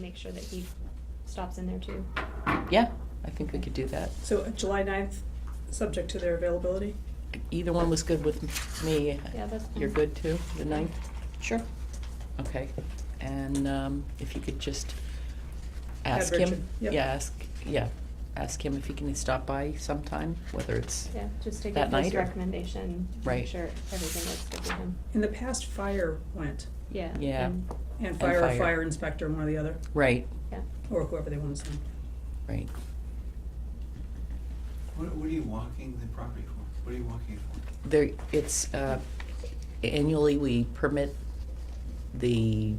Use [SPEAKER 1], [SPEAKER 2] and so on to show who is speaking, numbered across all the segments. [SPEAKER 1] make sure that he stops in there too.
[SPEAKER 2] Yeah, I think we could do that.
[SPEAKER 3] So uh, July 9th, subject to their availability?
[SPEAKER 2] Either one was good with me.
[SPEAKER 1] Yeah, that's
[SPEAKER 2] You're
[SPEAKER 1] fine.
[SPEAKER 2] good too, the ninth?
[SPEAKER 4] Sure.
[SPEAKER 2] Okay. And um, if you could just ask
[SPEAKER 3] Have
[SPEAKER 2] him.
[SPEAKER 3] Richard, yep.
[SPEAKER 2] Yeah, ask, yeah, ask him if he can stop by sometime, whether it's,
[SPEAKER 1] Yeah, just to
[SPEAKER 2] That
[SPEAKER 1] get his
[SPEAKER 2] night or-
[SPEAKER 1] recommendation, make
[SPEAKER 2] Right.
[SPEAKER 1] sure everything looks good to him.
[SPEAKER 3] In the past, fire went,
[SPEAKER 1] Yeah.
[SPEAKER 2] Yeah.
[SPEAKER 1] and-
[SPEAKER 3] and fire or
[SPEAKER 2] fire.
[SPEAKER 3] fire inspector, one or the other,
[SPEAKER 2] right,
[SPEAKER 1] Yeah.
[SPEAKER 3] or whoever they want to send.
[SPEAKER 2] right.
[SPEAKER 5] What, what are you walking the property for? What are you walking it for?
[SPEAKER 2] There, it's, uh, annually we permit the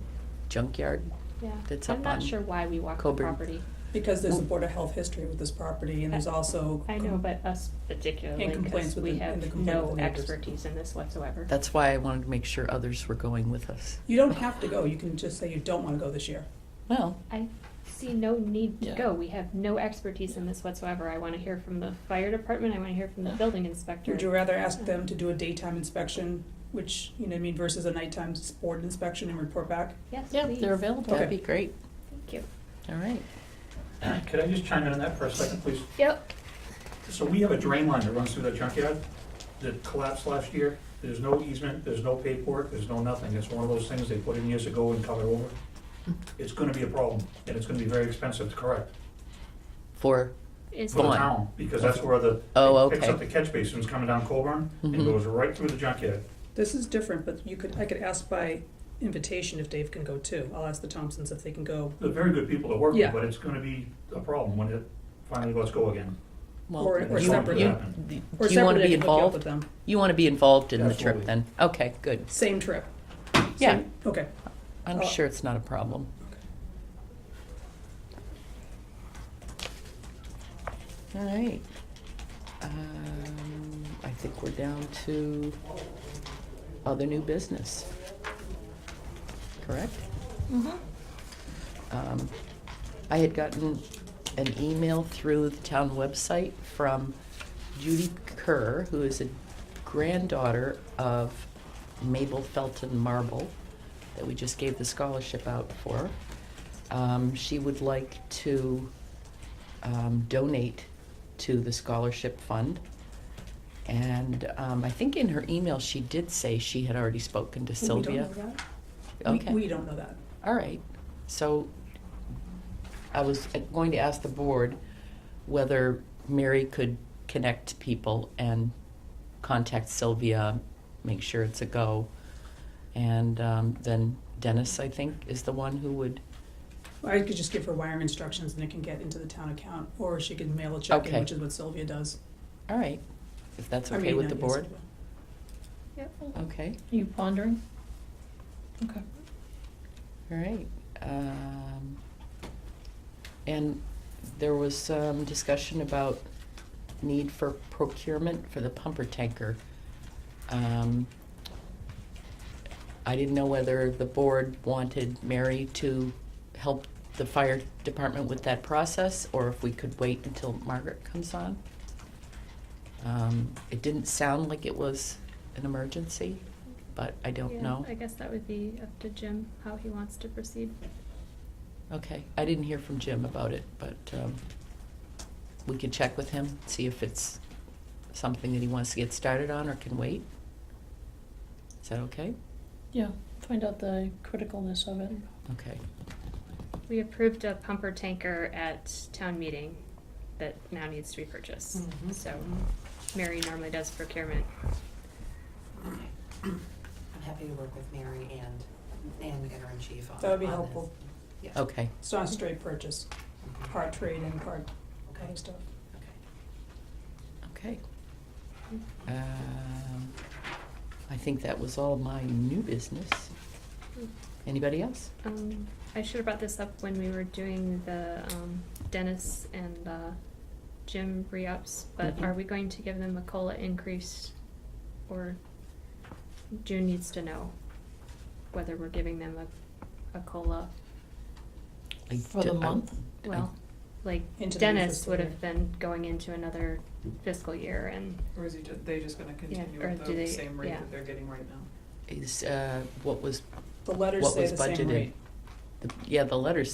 [SPEAKER 2] junkyard.
[SPEAKER 1] Yeah.
[SPEAKER 2] That's
[SPEAKER 1] I'm
[SPEAKER 2] up
[SPEAKER 1] not
[SPEAKER 2] on
[SPEAKER 1] sure why we walk the
[SPEAKER 2] Coburn.
[SPEAKER 1] property.
[SPEAKER 3] Because there's a Board of Health history with this property, and there's also.
[SPEAKER 1] I know, but us particularly,
[SPEAKER 3] And complaints
[SPEAKER 1] because
[SPEAKER 3] with
[SPEAKER 1] we
[SPEAKER 3] the- and the
[SPEAKER 1] have
[SPEAKER 3] complaint with
[SPEAKER 1] no
[SPEAKER 3] the neighbors.
[SPEAKER 1] expertise in this whatsoever.
[SPEAKER 2] That's why I wanted to make sure others were going with us.
[SPEAKER 3] You don't have to go, you can just say you don't want to go this year.
[SPEAKER 2] Well,
[SPEAKER 1] I see no need to
[SPEAKER 2] Yeah.
[SPEAKER 1] go. We have no expertise in this whatsoever. I wanna hear from the fire department, I wanna hear from the
[SPEAKER 2] Yeah.
[SPEAKER 1] building inspector.
[SPEAKER 3] Would you rather ask them to do a daytime inspection, which, you know what I mean, versus a nighttime board inspection and report back?
[SPEAKER 1] Yes,
[SPEAKER 2] yeah,
[SPEAKER 1] please.
[SPEAKER 2] they're available. That'd
[SPEAKER 3] Okay.
[SPEAKER 2] be great.
[SPEAKER 1] Thank you.
[SPEAKER 2] All right.
[SPEAKER 6] Could I just chime in on that for a second, please?
[SPEAKER 1] Yep,
[SPEAKER 6] So we have a drain line that runs through that junkyard that collapsed last year. There's no easement, there's no paperwork, there's no nothing. It's one of those things they put in years ago and covered over. It's gonna be a problem, and it's gonna be very expensive to correct
[SPEAKER 2] For,
[SPEAKER 1] is,
[SPEAKER 6] for the
[SPEAKER 2] Fine.
[SPEAKER 6] town, because that's where the,
[SPEAKER 2] Oh,
[SPEAKER 6] it picks
[SPEAKER 2] okay.
[SPEAKER 6] up the catch basins coming down Colburn and
[SPEAKER 2] Mhm.
[SPEAKER 6] goes right through the junkyard.
[SPEAKER 3] This is different, but you could, I could ask by invitation if Dave can go too. I'll ask the Thompsons if they can go,
[SPEAKER 6] They're very good people to work
[SPEAKER 3] Yeah.
[SPEAKER 6] with, but it's gonna be a problem when it finally lets go again.
[SPEAKER 2] well,
[SPEAKER 3] Or- or
[SPEAKER 2] you-
[SPEAKER 3] separate.
[SPEAKER 2] you-
[SPEAKER 3] or
[SPEAKER 2] Do you want
[SPEAKER 3] separately,
[SPEAKER 2] to
[SPEAKER 3] I
[SPEAKER 2] be
[SPEAKER 3] could hook you up
[SPEAKER 2] involved?
[SPEAKER 3] with them.
[SPEAKER 2] You want to be involved in the trip
[SPEAKER 6] Absolutely.
[SPEAKER 2] then? Okay, good.
[SPEAKER 3] Same trip.
[SPEAKER 2] Yeah,
[SPEAKER 3] Okay.
[SPEAKER 2] I'm
[SPEAKER 3] Oh.
[SPEAKER 2] sure it's not a problem. All right. Um, I think we're down to other new business. Correct?
[SPEAKER 3] Mm-hmm.
[SPEAKER 2] Um, I had gotten an email through the town website from Judy Kerr, who is a granddaughter of Mabel Felton Marble, that we just gave the scholarship out for. Um, she would like to um, donate to the scholarship fund. And um, I think in her email, she did say she had already spoken to Sylvia. Oh.
[SPEAKER 3] We don't know that.
[SPEAKER 2] Okay.
[SPEAKER 3] We, we don't know that.
[SPEAKER 2] All right, so I was going to ask the board whether Mary could connect people and contact Sylvia, make sure it's a go. And um, then Dennis, I think, is the one who would,
[SPEAKER 3] I could just give her wire instructions and it can get into the town account, or she can mail a check in,
[SPEAKER 2] Okay.
[SPEAKER 3] which is what Sylvia does.
[SPEAKER 2] all right, if that's
[SPEAKER 3] I
[SPEAKER 2] okay
[SPEAKER 3] mean,
[SPEAKER 2] with
[SPEAKER 3] uh,
[SPEAKER 2] the
[SPEAKER 3] yes,
[SPEAKER 2] board?
[SPEAKER 3] Sylvia.
[SPEAKER 4] Yep.
[SPEAKER 2] Okay,
[SPEAKER 4] You pondering? Okay.
[SPEAKER 2] all right. Um, And there was some discussion about need for procurement for the pumper tanker. Um, I didn't know whether the board wanted Mary to help the fire department with that process, or if we could wait until Margaret comes on. Um, It didn't sound like it was an emergency, but I don't
[SPEAKER 1] yeah,
[SPEAKER 2] know.
[SPEAKER 1] I guess that would be up to Jim, how he wants to proceed.
[SPEAKER 2] Okay, I didn't hear from Jim about it, but um, we could check with him, see if it's something that he wants to get started on or can wait. Is that okay?
[SPEAKER 4] Yeah, find out the criticalness of it.
[SPEAKER 2] Okay,
[SPEAKER 1] We approved a pumper tanker at town meeting that now needs to be purchased.
[SPEAKER 2] Mhm.
[SPEAKER 1] So Mary normally does procurement.
[SPEAKER 7] I'm happy to work with Mary and, and the interim chief on.
[SPEAKER 3] That would be
[SPEAKER 7] on this.
[SPEAKER 3] helpful.
[SPEAKER 7] Yeah.
[SPEAKER 2] okay,
[SPEAKER 3] It's not a straight purchase, part trade and part kind of stuff.
[SPEAKER 7] Okay.
[SPEAKER 2] okay. Um, I think that was all my new business. Anybody else?
[SPEAKER 1] Um, I should have brought this up when we were doing the um, Dennis and uh, Jim re-ups, but
[SPEAKER 2] Mhm.
[SPEAKER 1] are we going to give them a COLA increase? Or June needs to know whether we're giving them a, a COLA.
[SPEAKER 2] I
[SPEAKER 4] For the
[SPEAKER 2] don't- I-
[SPEAKER 4] month?
[SPEAKER 2] I-
[SPEAKER 1] Well, like
[SPEAKER 3] Into the new
[SPEAKER 1] Dennis
[SPEAKER 3] fiscal
[SPEAKER 1] would
[SPEAKER 3] year.
[SPEAKER 1] have been going into another fiscal year and
[SPEAKER 8] Or is he, ju- they just gonna continue
[SPEAKER 1] or
[SPEAKER 8] at
[SPEAKER 1] do they-
[SPEAKER 8] the same rate
[SPEAKER 1] yeah.
[SPEAKER 8] that they're getting right now?
[SPEAKER 2] Is, uh, what was,
[SPEAKER 3] The letters
[SPEAKER 2] what
[SPEAKER 3] say
[SPEAKER 2] was
[SPEAKER 3] the same rate.
[SPEAKER 2] budgeted? The- Yeah, the letters